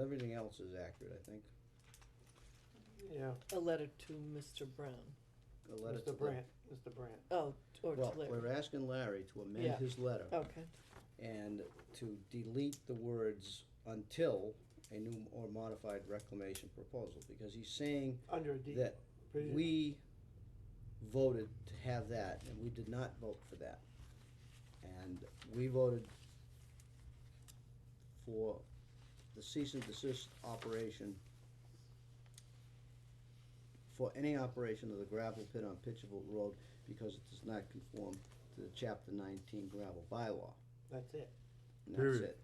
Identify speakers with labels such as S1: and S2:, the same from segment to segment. S1: Everything else is accurate, I think.
S2: Yeah,
S3: A letter to Mr. Brown.
S1: The letter to
S2: Mr. Brandt, Mr. Brandt.
S3: Oh, or to
S1: Well,
S3: Larry.
S1: we're asking Larry to amend
S3: Yeah. Oh.
S1: his letter
S3: Okay,
S1: and to delete the words until a new or modified reclamation proposal, because he's saying
S2: Under a deed.
S1: that
S2: provision.
S1: we voted to have that, and we did not vote for that. And we voted for the cease and desist operation for any operation of the gravel pit on Pitcherville Road because it does not conform to the chapter nineteen gravel bylaw,
S2: That's it.
S1: and that's
S4: Period.
S1: it.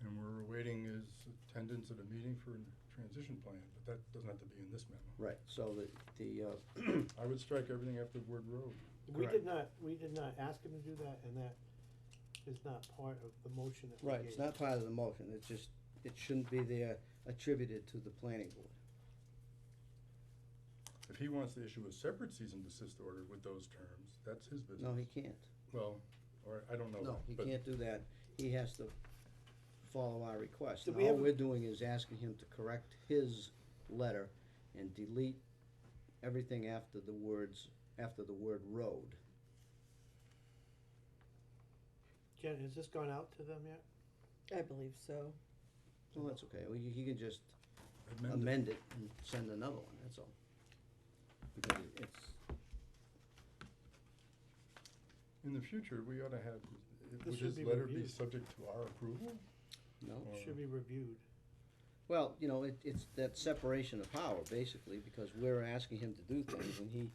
S4: And we're awaiting his attendance at a meeting for a transition plan, but that doesn't have to be in this memo.
S1: Right, so the, the, uh,
S4: I would strike everything after the word road.
S2: We
S1: Correct.
S2: did not, we did not ask him to do that, and that is not part of the motion that we
S1: Right,
S2: gave.
S1: it's not part of the motion, it's just, it shouldn't be there attributed to the planning board.
S4: If he wants to issue a separate cease and desist order with those terms, that's his business.
S1: No, he can't.
S4: Well, or I don't know.
S1: No,
S4: that,
S1: he
S4: but
S1: can't do that. He has to follow our request.
S2: Did
S1: And
S2: we
S1: all
S2: have a-
S1: we're doing is asking him to correct his letter and delete everything after the words, after the word road.
S2: Jen, has this gone out to them yet?
S3: I believe so.
S1: So that's okay. Well, he he can just
S4: amend it.
S1: amend it and send another one, that's all. Because it- it's,
S4: In the future, we ought to have,
S2: This
S4: would
S2: should
S4: his
S2: be
S4: letter be
S2: reviewed.
S4: subject to our approval?
S1: no.
S4: Or-
S2: Should be reviewed.
S1: Well, you know, it, it's that separation of power, basically, because we're asking him to do things, and he,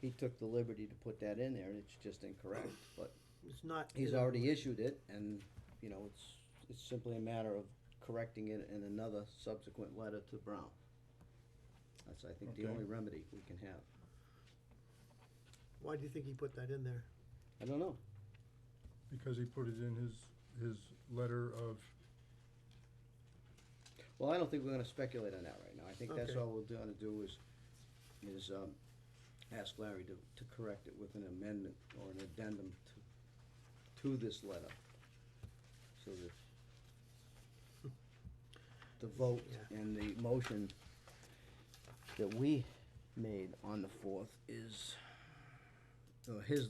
S1: he took the liberty to put that in there, and it's just incorrect, but
S2: It's not.
S1: he's
S2: in our
S1: already
S2: motion.
S1: issued it, and, you know, it's, it's simply a matter of correcting it in another subsequent letter to Brown. That's, I think, the
S4: Okay.
S1: only remedy we can have.
S2: Why do you think he put that in there?
S1: I don't know.
S4: Because he put it in his, his letter of,
S1: Well, I don't think we're gonna speculate on that right now. I think that's
S2: Okay.
S1: all we're gonna do is, is, um, ask Larry to, to correct it with an amendment or an addendum to, to this letter. So that the vote
S2: Yeah.
S1: and the motion that we made on the fourth is, or his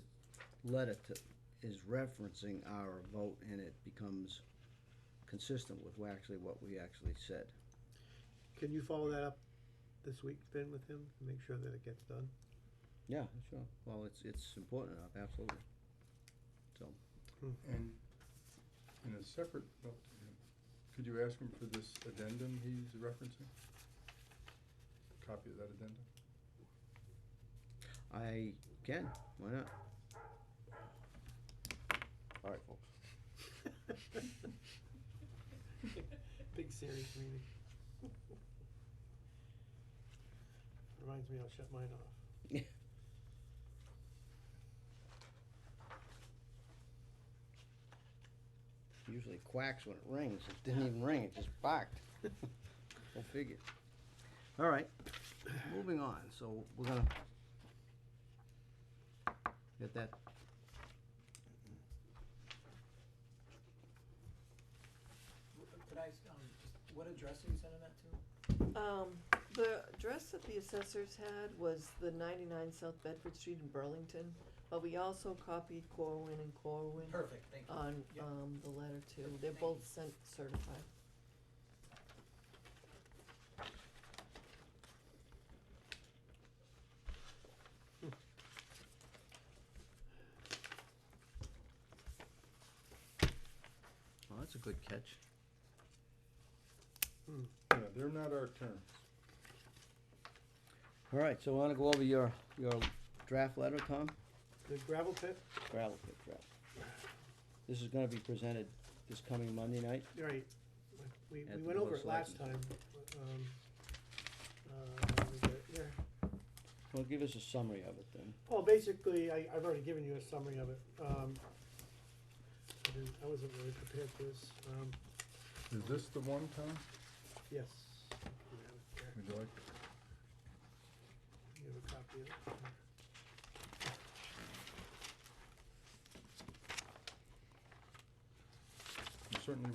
S1: letter to, is referencing our vote and it becomes consistent with what actually what we actually said.
S2: Can you follow that up this week, Finn, with him, and make sure that it gets done?
S1: Yeah, sure. Well, it's, it's important enough, absolutely.
S4: and in a separate, well, could you ask him for this addendum he's referencing? Copy of that addendum?
S1: I can, why not? All right, folks.
S2: Big serious meeting. Reminds me, I'll shut mine off.
S1: Usually quacks when it rings. It didn't even ring, it just barked. Go figure. All right, moving on. So we're gonna get that.
S5: Wh- Could I, s- um, just, what address are you sending that to?
S3: Um, the address that the assessors had was the ninety-nine South Bedford Street in Burlington, but we also copied Corwin and Corwin
S5: Perfect, thank you.
S3: on,
S5: Yep.
S3: um, the letter too. They're
S5: Thank
S3: both sent certified.
S1: Oh, that's a good catch.
S4: Yeah, they're not our terms.
S1: All right, so wanna go over your, your draft letter, Tom?
S2: The gravel pit,
S1: Gravel pit draft. This is gonna be presented this coming Monday night.
S2: right, we,
S1: At
S2: we
S1: the
S2: went
S1: Board
S2: over
S1: of
S2: it last time,
S1: Selectmen.
S2: um, uh, let me get it there.
S1: Well, give us a summary of it then.
S2: Well, basically, I, I've already given you a summary of it, um, I didn't, I wasn't really prepared for this, um,
S4: Is this the one, Tom?
S2: yes. You have it there.
S4: Would you like?
S2: You have a copy of it?
S4: You're certainly